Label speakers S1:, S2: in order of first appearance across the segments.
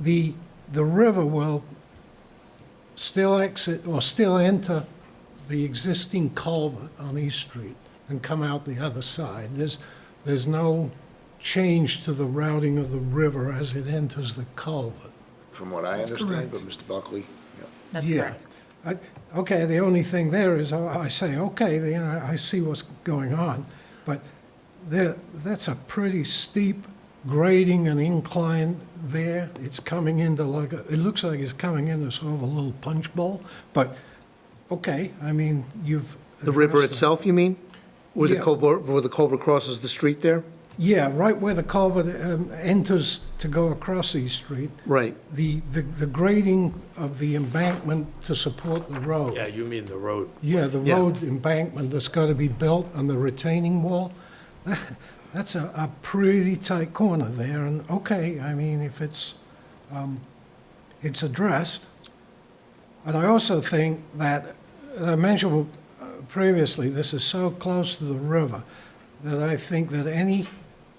S1: the, the river will still exit or still enter the existing culvert on East Street and come out the other side. There's, there's no change to the routing of the river as it enters the culvert.
S2: from what I understand, but Mr. Buckley, yeah.
S3: That's
S1: Yeah.
S3: correct.
S1: I- Okay, the only thing there is, I I say, okay, you know, I see what's going on, but there, that's a pretty steep grading and incline there. It's coming into like, a- it looks like it's coming into sort of a little punch bowl, but, okay, I mean, you've.
S4: The river
S1: addressed that.
S4: itself, you mean? Where the
S1: Yeah.
S4: culvert, where the culvert crosses the street there?
S1: Yeah, right where the culvert um, enters to go across East Street,
S4: Right.
S1: the, the the grading of the embankment to support the road.
S5: Yeah, you mean the road.
S1: Yeah, the
S4: Yeah.
S1: road embankment that's got to be built and the retaining wall, that's a, a pretty tight corner there, and okay, I mean, if it's, um, it's addressed. And I also think that, as I mentioned uh, previously, this is so close to the river that I think that any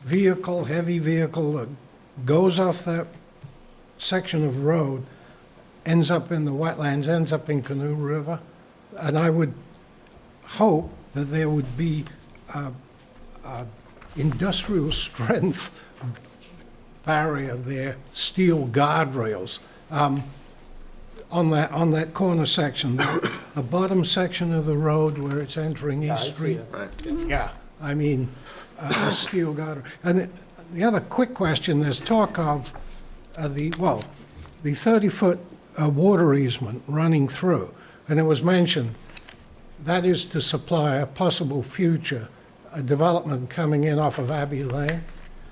S1: vehicle, heavy vehicle that goes off that section of road ends up in the wetlands, ends up in Canoe River. And I would hope that there would be uh, uh, industrial strength barrier there, steel guardrails um, on that, on that corner section, the bottom section of the road where it's entering East Street. Yeah, I mean, uh, a steel gutter. And the other quick question, there's talk of uh, the, well, the 30-foot uh, water easement running through, and it was mentioned, that is to supply a possible future uh, development coming in off of Abbey Lane?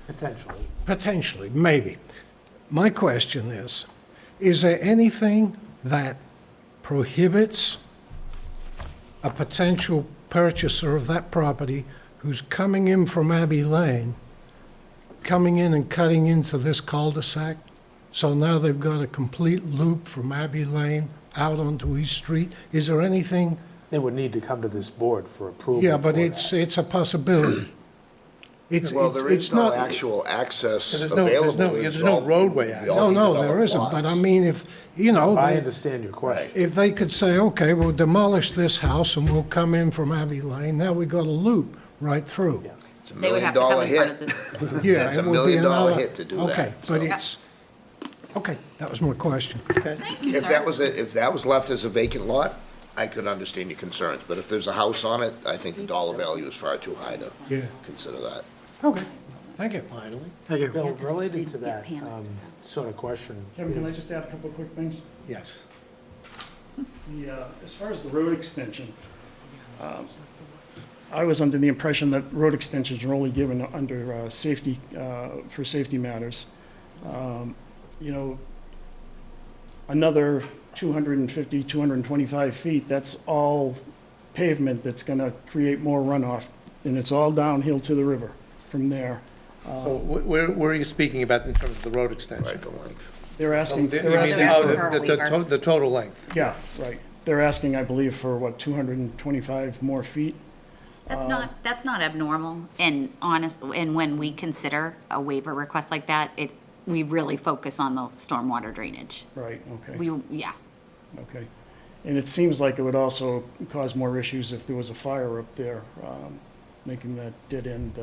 S5: Potentially.
S1: Potentially, maybe. My question is, is there anything that prohibits a potential purchaser of that property who's coming in from Abbey Lane, coming in and cutting into this cul-de-sac? So now they've got a complete loop from Abbey Lane out onto East Street? Is there anything?
S5: They would need to come to this board for approval.
S1: Yeah, but
S5: for
S1: it's,
S5: that.
S1: it's a possibility. It's,
S2: Well,
S1: it's
S2: there
S1: it's
S2: is no
S1: not.
S2: actual access
S4: There's no- there's
S2: available.
S4: no-
S2: It's
S4: there's no
S2: all-
S4: roadway
S2: they
S4: access.
S2: all
S1: No, no,
S2: developed
S1: there isn't, but
S2: lots.
S1: I mean, if, you know,
S5: I
S1: they-
S5: understand your question.
S1: if they could say, okay, we'll demolish this house and we'll come in from Abbey Lane, now we got a loop right through.
S5: Yeah.
S2: It's a
S3: They would
S2: million
S3: have to come
S2: dollar
S3: in front of
S2: hit.
S3: this.
S1: Yeah,
S2: That's a
S1: it would be
S2: million dollar
S1: another-
S2: hit to do that,
S1: Okay,
S2: so.
S1: but it's, okay, that was my question.
S2: If that was, a- if that was left as a vacant lot, I could understand your concerns, but if there's a house on it, I think the dollar value is far too high to
S1: Yeah.
S2: consider that.
S1: Okay, thank you.
S4: Thank you.
S5: Bill, related to that
S3: Your pants is
S5: um,
S3: up.
S5: sort of question,
S6: Kevin, can I
S5: is-
S6: just add a couple of quick things?
S4: Yes.
S6: The, uh, as far as the road extension, um, I was under the impression that road extensions are only given under uh, safety, uh, for safety matters. Um, You know, another 250, 225 feet, that's all pavement that's going to create more runoff, and it's all downhill to the river from there.
S4: So wh- where, where are you speaking about in terms of the road extension?
S2: Right, the length.
S6: They're
S4: Oh,
S6: asking,
S4: the- you
S6: they're
S4: mean
S6: asking,
S4: the- oh,
S3: for a
S4: the- the
S3: waiver.
S4: to- The total length.
S6: yeah, right. They're asking, I believe, for what, 225 more feet?
S3: That's not, that's not abnormal, and honest, and when we consider a waiver request like that, it, we really focus on the stormwater drainage.
S6: Right, okay.
S3: We, yeah,
S6: Okay. And it seems like it would also cause more issues if there was a fire up there, um, making that dead-end uh,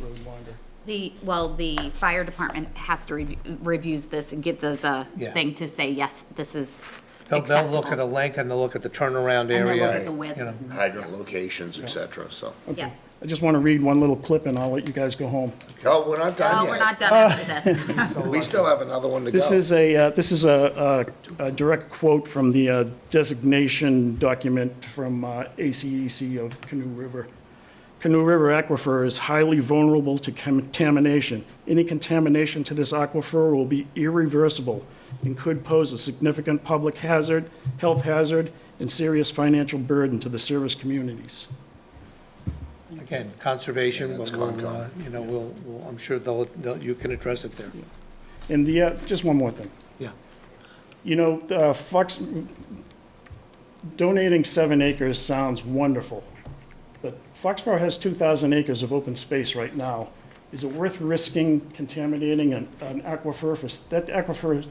S6: road longer.
S3: the, well, the fire department has to review, reviews this and gives us a
S4: Yeah.
S3: thing to say, yes, this is
S4: They'll, they'll look at the
S3: acceptable.
S4: length and they'll look at the turnaround
S3: they'll
S4: area.
S3: look at the width.
S4: you know.
S2: Hydrant locations, et cetera, so.
S3: Yeah,
S6: I just want to read one little clip and I'll let you guys go home.
S2: Oh, we're not done
S3: no,
S2: yet.
S3: we're not done
S4: Uh,
S3: after this.
S2: We still have another one to go.
S6: This is a, uh, this is a, a a direct quote from the uh, designation document from uh, ACEC of Canoe River. Canoe River aquifer is highly vulnerable to contamination. Any contamination to this aquifer will be irreversible and could pose a significant public hazard, health hazard, and serious financial burden to the service communities.
S4: Again, conservation,
S2: Yeah,
S4: but
S2: that's
S4: we'll, uh,
S2: Concom.
S4: you know, we'll, we'll- I'm sure they'll, they'll- you can address it there.
S6: And the, uh, just one more thing.
S4: Yeah.
S6: You know, uh, Fox, donating seven acres sounds wonderful, but Foxborough has 2,000 acres of open space right now. Is it worth risking contaminating an an aquifer for, s- that aquifer